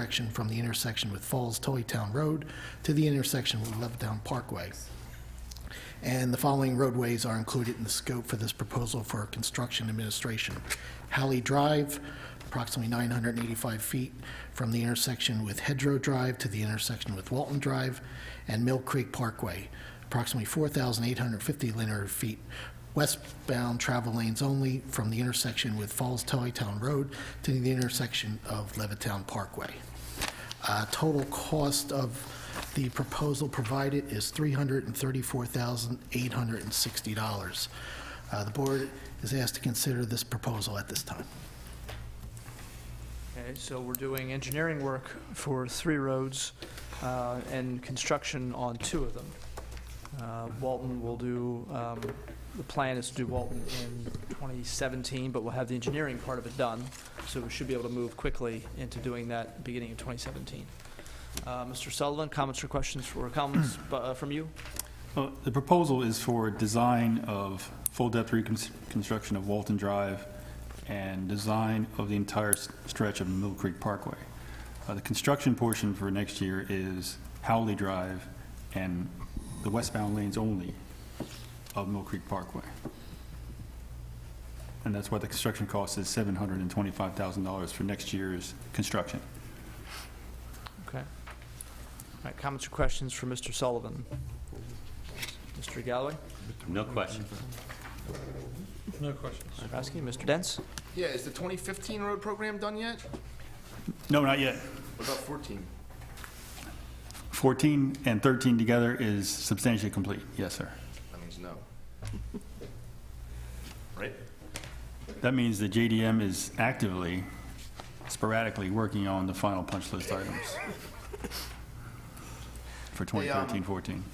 section from the intersection with Falls Toytown Road to the intersection with Levittown Parkway. And the following roadways are included in the scope for this proposal for construction administration. Halley Drive, approximately 985 feet from the intersection with Hedgerow Drive to the intersection with Walton Drive, and Mill Creek Parkway, approximately 4,850 linear feet westbound travel lanes only from the intersection with Falls Town Road to the intersection of Levittown Parkway. Uh, Total cost of the proposal provided is $334,860. Uh, The board is asked to consider this proposal at this time. Okay, so we're doing engineering work for three roads uh, and construction on two of them. Uh, Walton will do, um, the plan is to do Walton in 2017, but we'll have the engineering part of it done, so we should be able to move quickly into doing that beginning of 2017. Uh, Mr. Sullivan, comments or questions for, comments uh, from you? Well, The proposal is for design of full-depth reconstruction of Walton Drive and design of the entire s- stretch of Mill Creek Parkway. Uh, The construction portion for next year is Howley Drive and the westbound lanes only of Mill Creek Parkway. And that's why the construction cost is $725,000 for next year's construction. Okay. All right, comments or questions for Mr. Sullivan? Mr. Galloway, No question. Mr. Raskin, Mr. Dents? Yeah, is the 2015 road program done yet? No, not yet. What about 14? 14 and 13 together is substantially complete. Yes, sir. That means no. Right? That means the JDM is actively, sporadically working on the final punch list items for um, 2013, 14.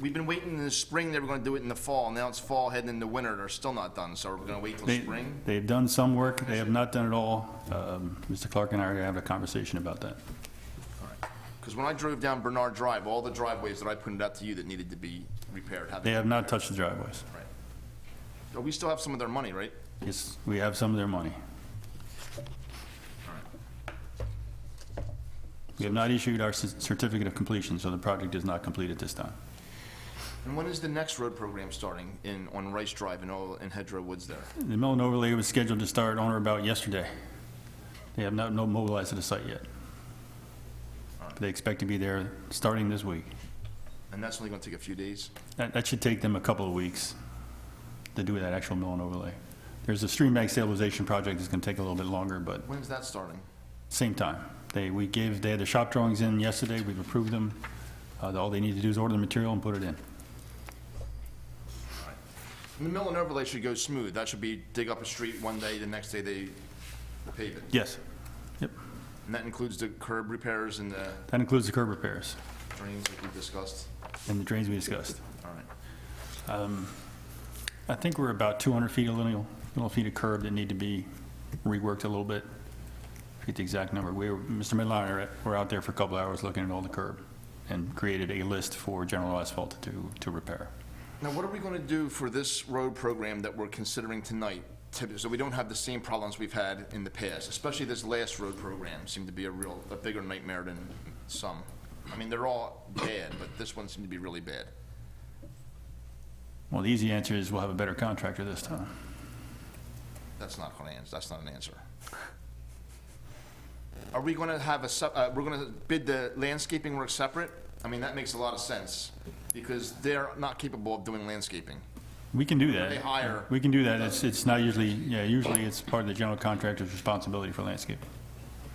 We've been waiting in the spring, they were gonna do it in the fall, now it's fall heading into winter, they're still not done, so we're gonna wait till They- spring? They've done some work, they have not done it all. Um, Mr. Clark and I are having a conversation about that. Because when I drove down Bernard Drive, all the driveways that I pointed out to you that needed to be repaired, have They they? have not touched the driveways. Oh, We still have some of their money, right? Yes, we have some of their money. We have not issued our c- certificate of completion, so the project is not complete at this time. And when is the next road program starting in, on Rice Drive and all, in Hedgerow Woods there? The mill and overlay was scheduled to start on or about yesterday. They have not no mobilized to the site yet. But They expect to be there starting this week. And that's only gonna take a few days? That, that should take them a couple of weeks to do that actual mill and overlay. There's a stream bank stabilization project that's gonna take a little bit longer, but When's that starting? same time. They, we gave, they had the shop drawings in yesterday, we've approved them. Uh, all they need to do is order the material and put it in. The mill and overlay should go smooth, that should be dig up a street one day, the next day they pave it. Yes. Yep. And that includes the curb repairs and the That includes the curb repairs drains like we discussed? and the drains we discussed. All right. I think we're about 200 feet, of little, little feet of curb that need to be reworked a little bit. I forget the exact number. We, were- Mr. Midliner, were out there for a couple hours looking at all the curb and created a list for general asphalt to, to repair. Now, what are we going to do for this road program that we're considering tonight? to- So we don't have the same problems we've had in the past, especially this last road program seemed to be a real, a bigger nightmare than some. I mean, they're all bad, but this one seemed to be really bad. Well, the easy answer is we'll have a better contractor this time. That's not going to answer, that's not an answer. Are we going to have a, sep- uh, we're going to bid the landscaping work separate? I mean, that makes a lot of sense, because they're not capable of doing landscaping. We can do that. They hire- We can do that. It's, it's not usually, yeah, usually it's part of the general contractor's responsibility for landscaping.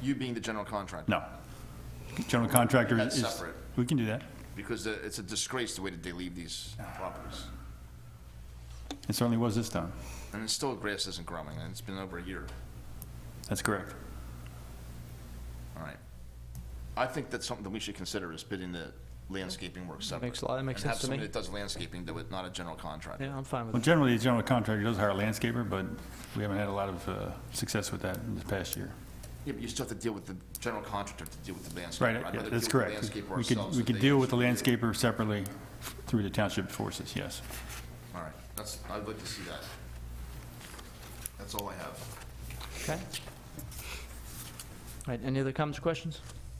You being the general contractor. No. General contractor That's is. separate. We can do that. Because uh, it's a disgrace the way that they leave these properties. It certainly was this time. And it's still, grass isn't growing, and it's been over a year. That's correct. All right. I think that's something that we should consider, is bidding the landscaping work separate. makes a lot- that makes And have sense to me. somebody that does landscaping do it, not a general contractor. Yeah, I'm fine with Well, that. generally, the general contractor does hire a landscaper, but we haven't had a lot of uh, success with that in this past year. Yeah, but you still have to deal with the general contractor to deal with the Right, landscaper. I'd yeah, that's rather deal with the correct. landscaper We could, ourselves we if could they deal with the actually do landscaper separately through the township forces, yes. it. All right, that's, I'd like to see that. That's all I have. Okay. All right, any other comments or questions?